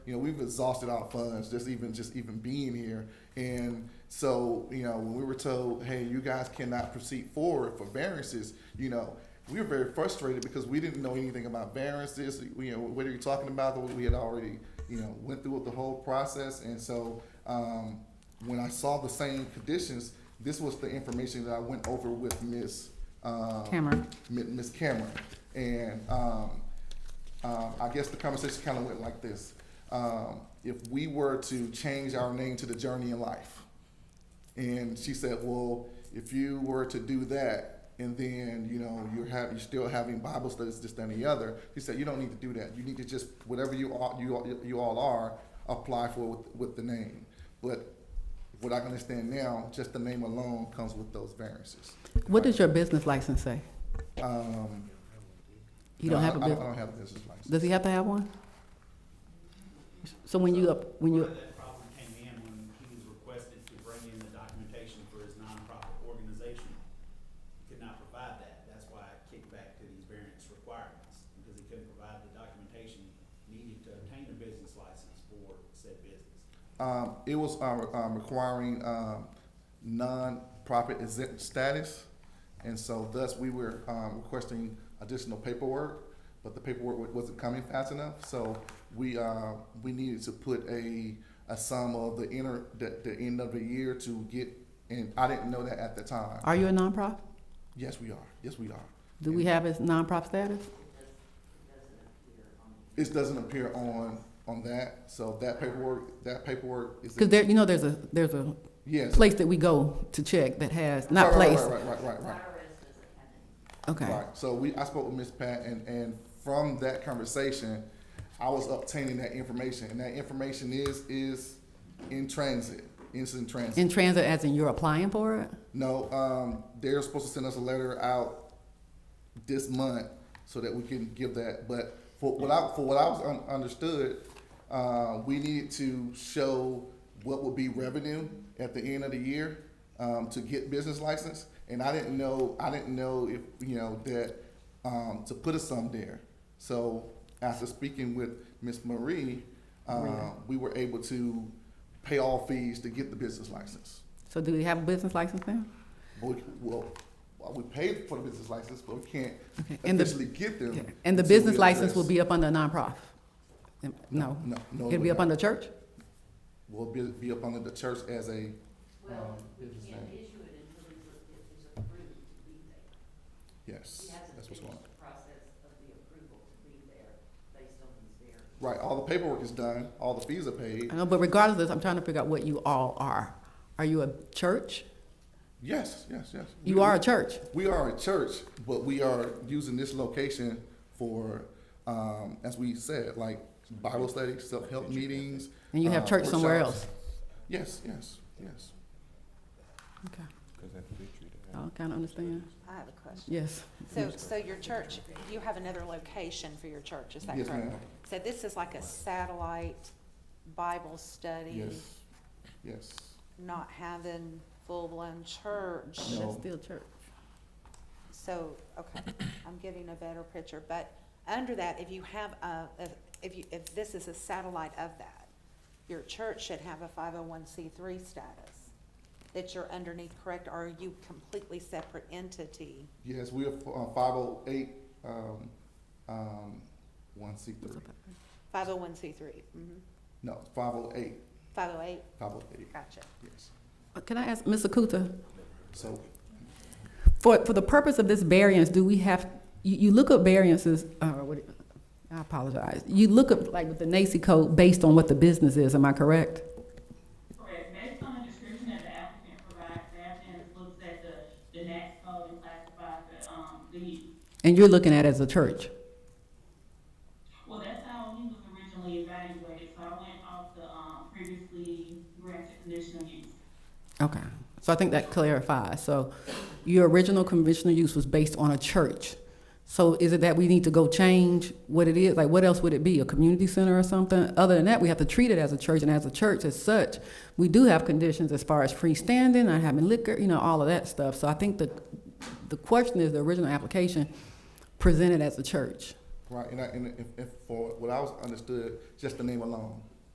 You know, we've exhausted our funds just even just even being here. And so, you know, when we were told, hey, you guys cannot proceed forward for variances, you know, we were very frustrated because we didn't know anything about variances. You know, what are you talking about? We had already, you know, went through the whole process. And so, um, when I saw the same conditions, this was the information that I went over with Ms. uh, Cameron. M- Ms. Cameron. And um, um, I guess the conversation kind of went like this. Um, if we were to change our name to The Journey in Life, and she said, well, if you were to do that, and then, you know, you're having, you're still having Bible studies, this, that, and the other, she said, you don't need to do that. You need to just, whatever you all, you, all- you all are, apply for with, with the name. But what I can understand now, just the name alone comes with those variances. What does your business license say? Um, You don't no, have I- a I don't- I business, don't have a business license. does he have to have one? So when you, up, when you, Part of that problem came in when he was requested to bring in the documentation for his nonprofit organization. He could not provide that, that's why I kicked back to these variance requirements, because he couldn't provide the documentation needed to obtain a business license for said business. Um, it was, um, um, requiring, um, non-profit exempt status. And so thus we were, um, requesting additional paperwork, but the paperwork wa- wasn't coming fast enough. So we, uh, we needed to put a, a sum of the inner, the, the end of the year to get, and I didn't know that at the time. are you a nonprofit? Yes, we are. Yes, we are. Do we have his nonprofit status? It doesn't appear on, on that, so that paperwork, that paperwork is. Because there, you know, there's a, there's a Yes. place that we go to check that has, Right, not right, place, Right, right, right, right, okay. right. So we, I spoke with Ms. Pat, and, and from that conversation, I was obtaining that information, and that information is, is in transit, is in transit. In transit, as in you're applying for it? No, um, they're supposed to send us a letter out this month so that we can give that, but for what I, for what I was un- understood, uh, we needed to show what would be revenue at the end of the year, um, to get business license, and I didn't know, I didn't know if, you know, that, um, to put a sum there. So after speaking with Ms. Marie, uh, we were able to pay all fees to get the business license. So do we have a business license now? Well, we- well, well, we paid for the business license, but we can't Okay, and the- officially get them. Yeah. And until the we business license will address- be up under a nonprofit? No, No, no. it'll be up on. under church? Will be, be up under the church as a, Well, Um, we business can't name. issue it until it's, it's approved to be there. He yes, hasn't that's what's finished going on. the process of the approval to be there based on his variance. Right, all the paperwork is done, all the fees are paid, I know, but regardless, I'm trying to figure out what you all are. Are you a church? yes, yes, yes. You are a church. We are a church, but we are using this location for, um, as we said, like Bible study, self-help meetings. And you have uh, church somewhere workshops. else. Yes, yes, yes. Okay, Because that's victory to Oh, I have. kind of understand. I have a question. Yes. So, so your church, you have another location for your church, is that Yes, correct? ma'am. So this is like a satellite Bible study, Yes, yes. not having full-blown church? No. That's still church. So, okay, I'm getting a better picture, but under that, if you have a, if- if you, if this is a satellite of that, your church should have a five oh one C three status that you're underneath, correct? Or are you completely separate entity? Yes, we are five oh eight, um, um, one C three. Five oh one C three, mm-hmm, No, five oh eight, five oh eight, five oh eight, gotcha. yes. Uh, Can I ask, Ms. Akuta, So, for, for the purpose of this variance, do we have, you, you look up variances, uh, what, it- I apologize. You look up, like, with the NACI code based on what the business is, am I correct? Correct, based on the description that the applicant provides, the applicant looks at the, the next code and classifies the, um, the, And you're looking at it as a church? well, that's how he was originally evaluated, so I went off the, um, previously granted conditional use. Okay, so I think that clarifies. So your original conventional use was based on a church. So is it that we need to go change what it is? Like, what else would it be? A community center or something? Other than that, we have to treat it as a church, and as a church as such, we do have conditions as far as freestanding, not having liquor, you know, all of that stuff. So I think the, the question is the original application presented as a church. right, and I, and if, if, for what I was understood, just the name alone.